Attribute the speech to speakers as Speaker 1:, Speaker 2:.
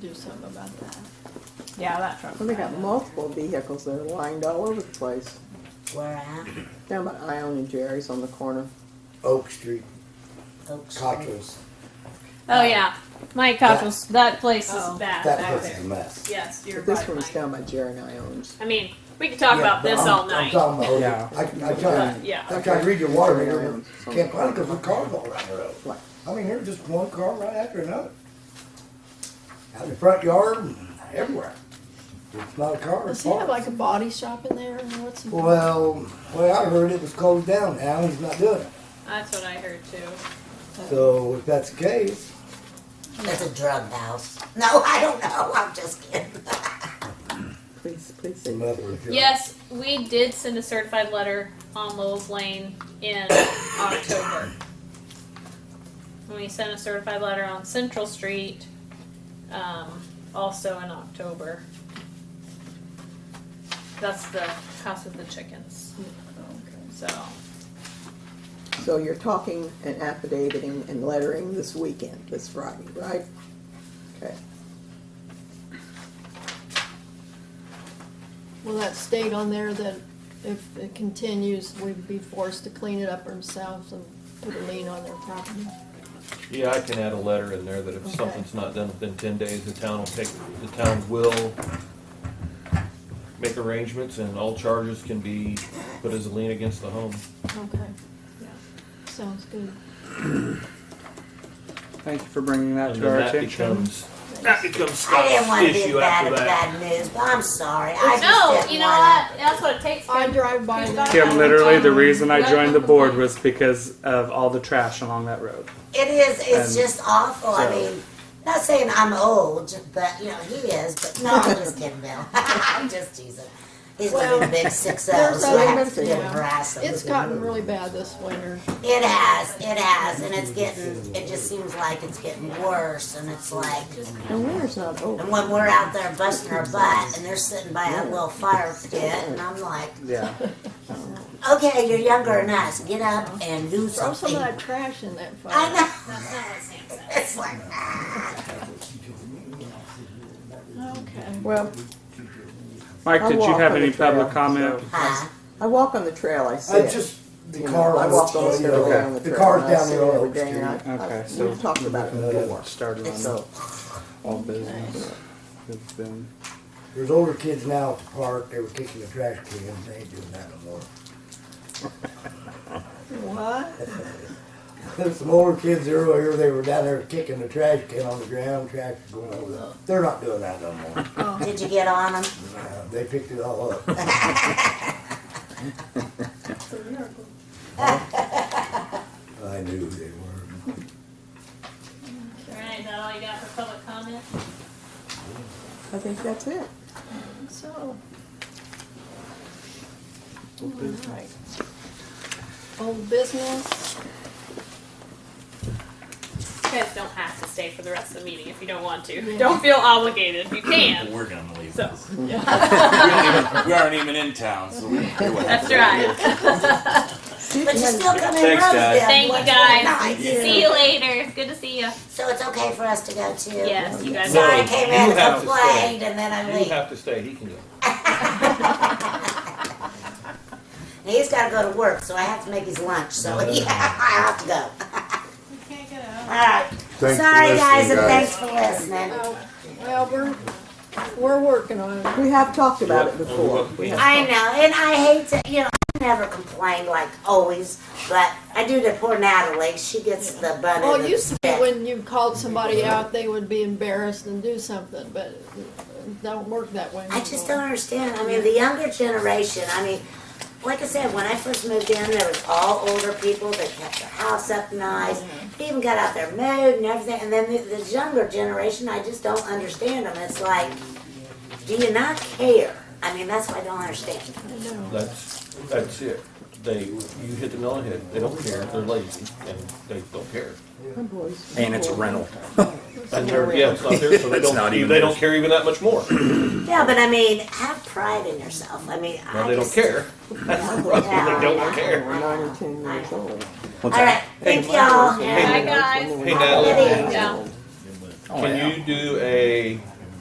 Speaker 1: do something about that. Yeah, that truck.
Speaker 2: Well, they got multiple vehicles that are lined all over the place.
Speaker 3: Where at?
Speaker 2: Down by Ione and Jerry's on the corner.
Speaker 4: Oak Street,
Speaker 3: Oak Street.
Speaker 4: Cottrell's,
Speaker 1: Oh yeah, my couples. That place
Speaker 3: Oh.
Speaker 1: is bad
Speaker 4: that
Speaker 1: back
Speaker 4: place is
Speaker 1: there.
Speaker 4: a mess.
Speaker 1: Yes, you're
Speaker 2: But this
Speaker 1: right.
Speaker 2: one's
Speaker 1: Mike.
Speaker 2: down by Jerry and Ione's.
Speaker 1: I mean, we could talk
Speaker 4: Yeah,
Speaker 1: about
Speaker 4: but
Speaker 1: this
Speaker 4: I'm-
Speaker 1: all
Speaker 4: I'm
Speaker 1: night.
Speaker 4: talking about,
Speaker 5: Yeah.
Speaker 4: I, I tried,
Speaker 1: But, yeah.
Speaker 4: I tried to read your water meter,
Speaker 2: Around
Speaker 4: but
Speaker 2: somewhere.
Speaker 4: can't find it because the cars all around the road.
Speaker 2: Right.
Speaker 4: I mean, there's just one car right after another. Out in the front yard and everywhere. It's not a car.
Speaker 1: Does he
Speaker 4: parked.
Speaker 1: have like a body shop in there or what's? in-
Speaker 4: Well, well, I heard it was closed down. Alan's not doing it.
Speaker 1: That's what I heard too.
Speaker 4: So if that's the case,
Speaker 3: It's a drug house. No, I don't know. I'm just kidding.
Speaker 2: Please, please
Speaker 4: it's
Speaker 2: say.
Speaker 4: another job.
Speaker 1: Yes, we did send a certified letter on Lowell's Lane in October. And we sent a certified letter on Central Street, um, also in October. That's the house with the chickens. So,
Speaker 2: So you're talking and affidaviting and lettering this weekend, this Friday, right? Okay.
Speaker 6: Will that state on there that if it continues, we'd be forced to clean it up ourselves and put a lien on their property?
Speaker 7: Yeah, I can add a letter in there that if
Speaker 6: Okay.
Speaker 7: something's not done within ten days, the town will take, the town will make arrangements and all charges can be put as a lien against the home.
Speaker 6: Okay,
Speaker 1: yeah.
Speaker 6: sounds good.
Speaker 5: Thank you for bringing that
Speaker 7: And
Speaker 5: to our
Speaker 7: then that
Speaker 5: attention.
Speaker 7: becomes, that becomes
Speaker 3: I didn't want
Speaker 7: Scott's
Speaker 3: to be
Speaker 7: issue
Speaker 3: bad
Speaker 7: after
Speaker 3: at
Speaker 7: that.
Speaker 3: bad news, but I'm sorry. I just
Speaker 1: No,
Speaker 3: didn't
Speaker 1: you know
Speaker 3: wanna-
Speaker 1: what? That's what it takes.
Speaker 6: I drive by
Speaker 1: Kim,
Speaker 6: that.
Speaker 5: Kim, literally, the reason I joined the board was because of all the trash along that road.
Speaker 3: It is. It's
Speaker 5: And
Speaker 3: just awful. I
Speaker 5: so-
Speaker 3: mean, not saying I'm old, but you know he is. But no, I'm just kidding, Bill. I'm just teasing. He's
Speaker 6: Well,
Speaker 3: living a big six
Speaker 6: there's
Speaker 3: O's. so
Speaker 6: other
Speaker 3: I have to
Speaker 6: methods,
Speaker 3: deal
Speaker 6: yeah.
Speaker 3: with harassment.
Speaker 6: It's gotten really bad this winter.
Speaker 3: It has, it has, and it's getting, it just seems like it's getting worse, and it's like,
Speaker 2: And winter's not
Speaker 3: and
Speaker 2: over.
Speaker 3: when we're out there busting our butt, and they're sitting by a little fire pit, and I'm like,
Speaker 5: Yeah.
Speaker 3: okay, you're younger than us, get up and do
Speaker 6: Throw some
Speaker 3: something.
Speaker 6: of that trash in that
Speaker 3: I
Speaker 6: fire.
Speaker 3: know,
Speaker 1: That's not what Sam said.
Speaker 3: it's like,
Speaker 6: Okay.
Speaker 2: Well,
Speaker 5: Mike,
Speaker 2: I
Speaker 5: did you
Speaker 2: walk
Speaker 5: have
Speaker 2: on
Speaker 5: any
Speaker 2: the trail,
Speaker 5: public comment?
Speaker 3: huh?
Speaker 2: I walk on the trail, I see
Speaker 4: I
Speaker 2: it.
Speaker 4: just, the
Speaker 2: You know,
Speaker 4: car.
Speaker 2: I walk on the trail,
Speaker 5: Okay.
Speaker 2: down the
Speaker 4: The
Speaker 2: trail.
Speaker 4: car's
Speaker 2: and I
Speaker 4: down
Speaker 2: see it
Speaker 4: there on
Speaker 2: every
Speaker 4: Oak
Speaker 2: day, and I-
Speaker 5: Street.
Speaker 2: I-
Speaker 5: Okay, so
Speaker 2: We've talked about it before.
Speaker 5: Started on
Speaker 2: So,
Speaker 5: all business. It's been-
Speaker 4: There's older kids now at the park, they were kicking the trash cans, they ain't doing that no more.
Speaker 6: What?
Speaker 4: There's some older kids earlier, they were down there kicking the trash can on the ground, trash was going over the, they're not doing that no more.
Speaker 3: Did you get on them?
Speaker 4: Uh, They picked it all up. I knew they were.
Speaker 1: All right, is that all you got for public comment?
Speaker 2: I think that's it.
Speaker 6: So. Alright. Old business,
Speaker 1: You guys don't have to stay for the rest of the meeting if you don't want to. Don't feel obligated. You can.
Speaker 8: We're gonna leave.
Speaker 1: So
Speaker 8: we, aren't even, we aren't even in town, so we can do whatever.
Speaker 1: that's right.
Speaker 2: See if
Speaker 3: But
Speaker 2: you
Speaker 3: you
Speaker 2: had-
Speaker 3: still come in
Speaker 8: Thanks, guys.
Speaker 3: Rosedale.
Speaker 1: Thank you
Speaker 3: once
Speaker 1: guys.
Speaker 3: a night.
Speaker 1: See you later. Good to see you.
Speaker 3: So it's okay for us to go too?
Speaker 1: Yes, you guys.
Speaker 3: Sorry, I
Speaker 7: No,
Speaker 3: came
Speaker 7: you
Speaker 3: in and
Speaker 7: have to stay.
Speaker 3: complained, and then I
Speaker 7: You
Speaker 3: leave.
Speaker 7: have to stay, he can go.
Speaker 3: He's gotta go to work, so I have to make his lunch, so yeah, I have to go. Alright, sorry guys, and thanks for listening.
Speaker 6: well, we're, we're working on it.
Speaker 2: We have talked about it before. We have
Speaker 3: I know, and I hate to, you know, I never complain like always, but I do to poor Natalie, she gets the bun
Speaker 6: Well, it
Speaker 3: and the
Speaker 6: used to be
Speaker 3: stick.
Speaker 6: when you called somebody out, they would be embarrassed and do something, but it don't work that way.
Speaker 3: I just don't
Speaker 6: anymore.
Speaker 3: understand, I mean, the younger generation, I mean, like I said, when I first moved in, there was all older people that kept their house up nice,
Speaker 6: Mm-hmm.
Speaker 3: even got out their mood and everything, and then the, the younger generation, I just don't understand them, it's like, do you not care? I mean, that's what I don't understand.
Speaker 6: I
Speaker 7: Oh.
Speaker 6: know.
Speaker 7: That's, that's it. They, you hit the nail on the head. They don't care, they're lazy, and they don't care.
Speaker 2: My boys.
Speaker 9: And it's a rental.
Speaker 7: And they're, yeah, it's not there, so they
Speaker 9: It's not
Speaker 7: don't,
Speaker 9: even
Speaker 7: they don't
Speaker 9: theirs.
Speaker 7: care even that much more.
Speaker 3: Yeah, but I mean, have pride in yourself. I mean,
Speaker 7: Now,
Speaker 3: I
Speaker 7: they don't
Speaker 3: just,
Speaker 7: care. That's the problem, they don't
Speaker 2: They
Speaker 7: care.
Speaker 2: were nine or ten years old.
Speaker 3: All right, thank y'all.
Speaker 1: Bye
Speaker 2: And
Speaker 1: guys.
Speaker 2: they were
Speaker 7: Hey,
Speaker 2: nine
Speaker 7: Natalie.
Speaker 2: or 10 years
Speaker 1: Yeah.
Speaker 2: old.
Speaker 7: Can you do a